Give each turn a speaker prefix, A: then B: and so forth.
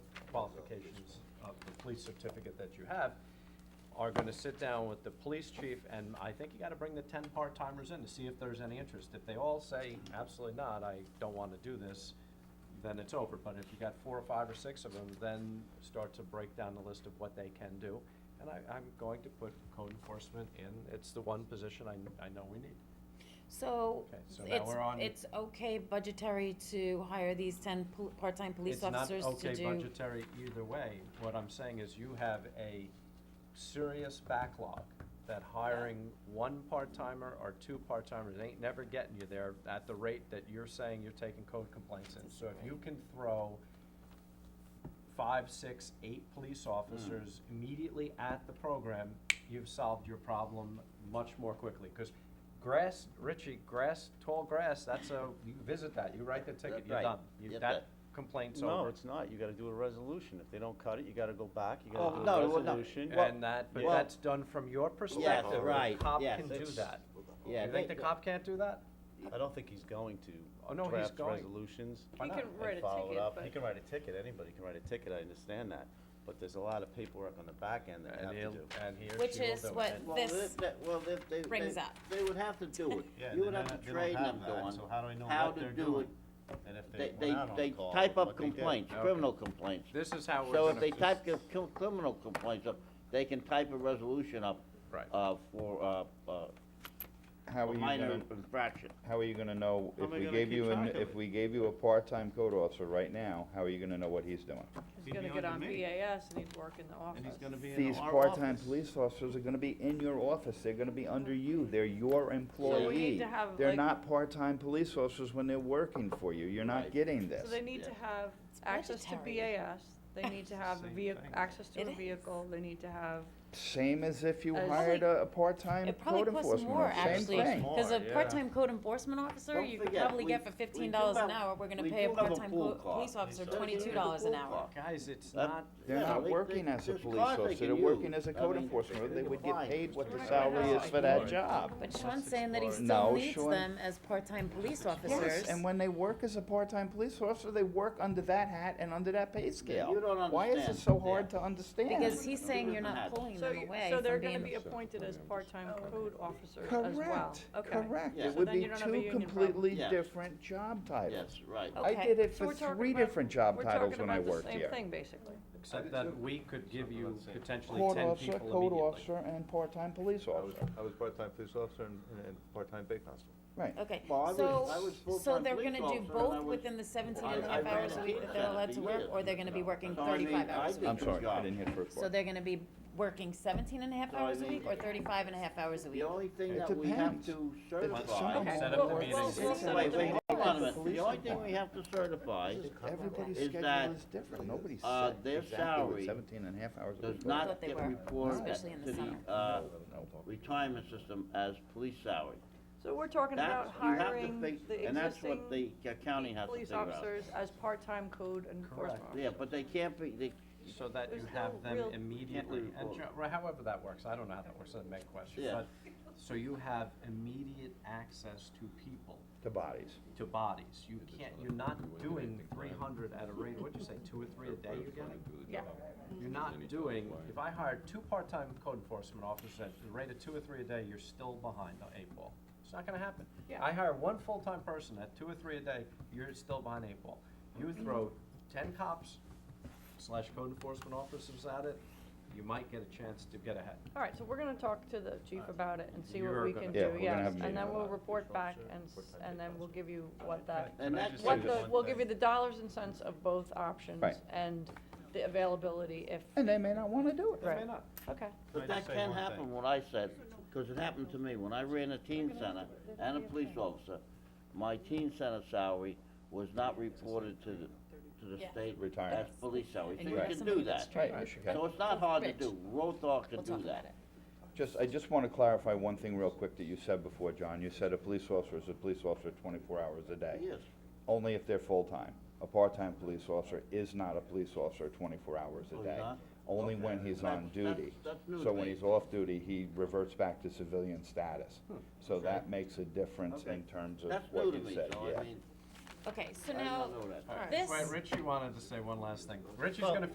A: applications of the police certificate that you have, are gonna sit down with the police chief, and I think you gotta bring the ten part-timers in to see if there's any interest. If they all say, absolutely not, I don't wanna do this, then it's over. But if you got four or five or six of them, then start to break down the list of what they can do. And I, I'm going to put code enforcement in, it's the one position I, I know we need.
B: So,
A: Okay, so now
B: it's,
A: we're on-
B: it's okay budgetary to hire these ten pol- part-time police officers to
A: It's not okay
B: do?
A: budgetary either way. What I'm saying is you have a serious backlog that hiring one part-timer or two part-timers ain't never getting you there at the rate that you're saying you're taking code complaints in. So if you can throw five, six, eight police officers
C: Hmm.
A: immediately at the program, you've solved your problem much more quickly. Because grass, Richie, grass, tall grass, that's a, you visit that, you write the ticket, you're
C: Right.
A: done. You-
C: Yep,
A: That
C: that-
A: complaint's
D: No,
A: over.
D: it's not, you gotta do a resolution, if they don't cut it, you gotta go back, you
C: Oh,
D: gotta do
C: no,
D: a
C: well, no.
D: resolution.
C: Well,
A: And that, but
D: well-
A: that's done from your perspective. The
C: right,
A: cop
C: yes,
A: can do
C: it's-
A: that.
C: Yeah,
A: You think
C: they-
A: the cop can't do that?
D: I don't think he's going to.
A: Oh, no, he's
D: draft
A: going.
D: resolutions.
A: Why
E: He
A: not?
E: can
D: and
E: write a
D: follow it
E: ticket,
D: up.
E: but.
D: He can write a ticket, anybody can write a ticket, I understand that, but there's a lot of paperwork on the back end that you have
A: And
D: to
A: he'll,
D: do.
A: and he or she will
B: Which
A: do it.
B: is what
C: Well,
B: this
C: that- that- well, they- they-
B: brings
C: they-
B: up.
C: They would have to do it. You would have to train them going. to do it.
D: And if
C: They,
D: they
C: they,
D: went out on
C: they
D: call,
C: type up
D: what they did.
C: complaints,
A: Okay.
C: criminal complaints.
A: This is how we're
C: So
A: gonna.
C: if they type
A: this-
C: cr- cr- criminal complaints up, they can type a resolution up.
A: Right.
C: Uh, for, uh, uh,
F: How
C: a
F: are you
C: minor
F: gonna,
C: infraction.
F: how are you gonna know,
D: How
F: if
D: am I
F: we
D: gonna
F: gave
D: keep
F: you, an-
D: track of
F: if
D: it?
F: we gave you a part-time code officer right now, how are you gonna know what he's doing?
E: He's gonna get on BAS and he'd work in the office.
F: These part-time police officers are gonna be in your office, they're gonna be under you, they're your employee.
E: to have,
F: They're
E: like-
F: not part-time police officers when they're working for you, you're
C: Right.
F: not getting this.
E: So they need to have access to
B: budgetary.
E: BAS, they need to have a
A: Same
E: vehicle,
A: thing.
E: access to
B: It
E: a
B: is.
E: vehicle, they need to have,
F: Same as if you
E: As-
F: hired a, a part-time
B: Uh, It
F: code
B: probably costs
F: enforcement
B: more,
F: officer, same
B: actually,
F: thing.
B: cause a
A: More, yeah.
B: part-time code enforcement officer,
C: Don't
B: you could
C: forget,
B: probably
C: we-
B: get for
C: we do
B: fifteen dollars an
C: have-
B: hour, we're gonna
C: we
B: pay a
C: do have a
B: part-time
C: pool
B: co-
C: car.
B: police officer
C: They're doing
B: twenty-two dollars
C: the
B: an
C: pool
B: hour.
C: car.
A: Guys, it's
C: That-
A: not,
F: They're
C: Yeah,
F: not
C: they-
F: working
C: they-
F: as a
C: there's
F: police
C: cars they
F: officer,
C: can
F: they're working
C: use.
F: as a
C: I
F: code
C: mean,
F: enforcement, they would get
C: fine.
F: paid what the
E: Mr.
F: salary is
E: Ricardo,
F: for that
E: Lord.
F: job.
B: But Sean saying that he still
F: No,
B: needs
F: Sean-
B: them as part-time police
F: Yes,
B: officers.
F: and when they work as a part-time police officer, they work under that hat and under that pay scale.
C: you don't
F: Why is
C: understand.
F: it so hard
C: Yeah.
F: to understand?
B: Because he's saying you're
C: Yeah.
B: not pulling
E: so,
B: them
E: you-
B: away
E: so
B: from
E: they're gonna
B: being
E: be appointed
C: Oh,
E: as part-time code officers as well.
F: Correct,
E: Okay.
F: correct.
C: Yeah.
F: It
C: So
F: would
E: then
F: be
E: you don't have a
F: two
E: union problem.
F: completely
C: Yes.
F: different job titles.
C: Yes, right.
B: Oh,
F: I
B: Okay.
F: did it
E: So
F: for
E: we're talking
F: three
E: about-
F: different job
E: we're
F: titles
E: talking
F: when I
E: about the
F: worked
E: same
F: here.
E: thing, basically.
B: Mm-hmm.
A: except that we could give you potentially
F: Court
A: ten
F: officer,
A: people
F: code
A: immediately.
F: officer, and part-time police
G: I was,
F: officer,
G: I was part-time police officer and, and- and part-time bay constable.
F: right.
B: Okay,
C: Well, I was- I
B: so,
C: was
B: so
C: full-time
B: they're
C: police
B: gonna do
C: officer, and I
B: both
C: was-
B: within the seventeen
C: I-
B: and a
C: I
B: half
C: ran
B: hours
C: a
B: a week that
C: pizza
B: they're
C: shop
B: allowed
C: for
B: to work,
C: years.
B: or they're gonna be working
C: So I mean,
B: thirty-five
C: I
B: hours a
C: did
B: week?
F: I'm
C: the
F: sorry, I
C: job.
F: didn't hear the first
B: So
F: part.
B: they're gonna be working seventeen and a half
C: So I
B: hours a week, or
C: mean-
B: thirty-five and a half hours a week?
C: The only thing
F: It
C: that we have
F: depends.
C: to
F: some
C: certify.
F: of
A: Set
F: Okay.
A: up the
F: Well,
A: meeting.
F: well,
A: set up
B: well,
C: Wait,
A: the
B: well,
C: wait,
A: meeting.
C: hold on a minute. The
F: Police
C: only thing we
F: department.
C: have to certify
F: Everybody's
C: Is
F: schedule
C: that,
F: is different, nobody's
C: uh,
F: set
C: their
F: exactly
C: salary
F: what seventeen and a half hours a week.
C: does
B: I
C: not
B: thought they
C: get
B: were,
C: reported
B: especially in the
C: to
B: summer.
C: the, uh,
F: No, no.
C: retirement system as police salary.
E: So we're talking
C: That's,
E: about
C: you have to
E: hiring the
C: think,
E: existing.
C: and that's what the uh, county has to
E: police
C: figure out.
E: officers as part-time code enforcement
C: Yeah,
E: officers.
C: but they can't be, they,
A: So that you
E: There's
A: have
E: no
A: them
E: real-
A: immediately,
C: Can't
A: and
C: really
A: Jo- well, however that works, I don't know how that works, that's a big question,
C: Yeah.
A: but, so you have immediate access to people.
F: To bodies.
A: to bodies. You can't, you're not doing three hundred at a rate, what'd you say, two or three a day you're getting?
E: Yeah,
A: You're not doing, if I hired two part-time code enforcement officers at the rate of two or three a day, you're still behind the eight ball. It's not gonna happen.
E: Yeah.
A: I hire one full-time person at two or three a day, you're still behind eight ball. You throw ten cops slash code enforcement officers at it, you might get a chance to get ahead.
E: all right, so we're gonna talk to the chief about it and see what
A: You're
E: we
A: gonna-
E: can
F: Yeah,
E: do,
F: we're Uh, gonna
E: yes,
F: have a
E: and then
F: meeting.
E: we'll report back and, s- and then we'll give you what that,
C: and
G: I
C: that's
G: just
E: what
G: say
E: the,
G: one
E: we'll
G: thing?
E: give you the dollars and cents of both options
F: Right.
E: and the availability if,
F: And they may not wanna do it.
A: They may
E: Right.
A: not.
E: okay.
C: But
G: Can I
C: that
G: just say
C: can
G: one thing?
C: happen, what I said, because it happened to me, when I ran a teen center and a police officer, my teen center salary was not reported to the, to the
B: Yeah.
C: state as
F: Retirement.
C: police salary, so
B: And
C: you
B: you have
C: can
B: somebody
C: do
B: that's
C: that.
F: Right,
B: trained.
F: yes, you can.
C: So it's not hard to
B: Rich.
C: do, Rothar
B: We'll
C: can
B: talk
C: do
B: about
C: that.
B: it.
F: Just, I just want to clarify one thing real quick that you said before, John. You said a police officer is a police officer twenty-four hours a day.
C: Yes,
F: Only if they're full-time. A part-time police officer is not a police officer twenty-four hours
C: Oh,
F: a
C: he's
F: day.
C: not?
F: Only when he's on
C: That's- that's-
F: duty.
C: that's new
F: So
C: to
F: when
C: me.
F: he's off duty, he reverts back to civilian status. So that makes a difference
C: Hmm. Okay.
F: in terms of
C: that's new
F: what
C: to
F: you
C: me,
F: said,
C: so
F: yeah.
C: I mean,
B: Okay,
C: I
B: so
C: did not
B: now,
C: know that.
A: All right,
B: this.
A: Wait, Richie wanted to say one last thing. Richie's
C: Well-
A: gonna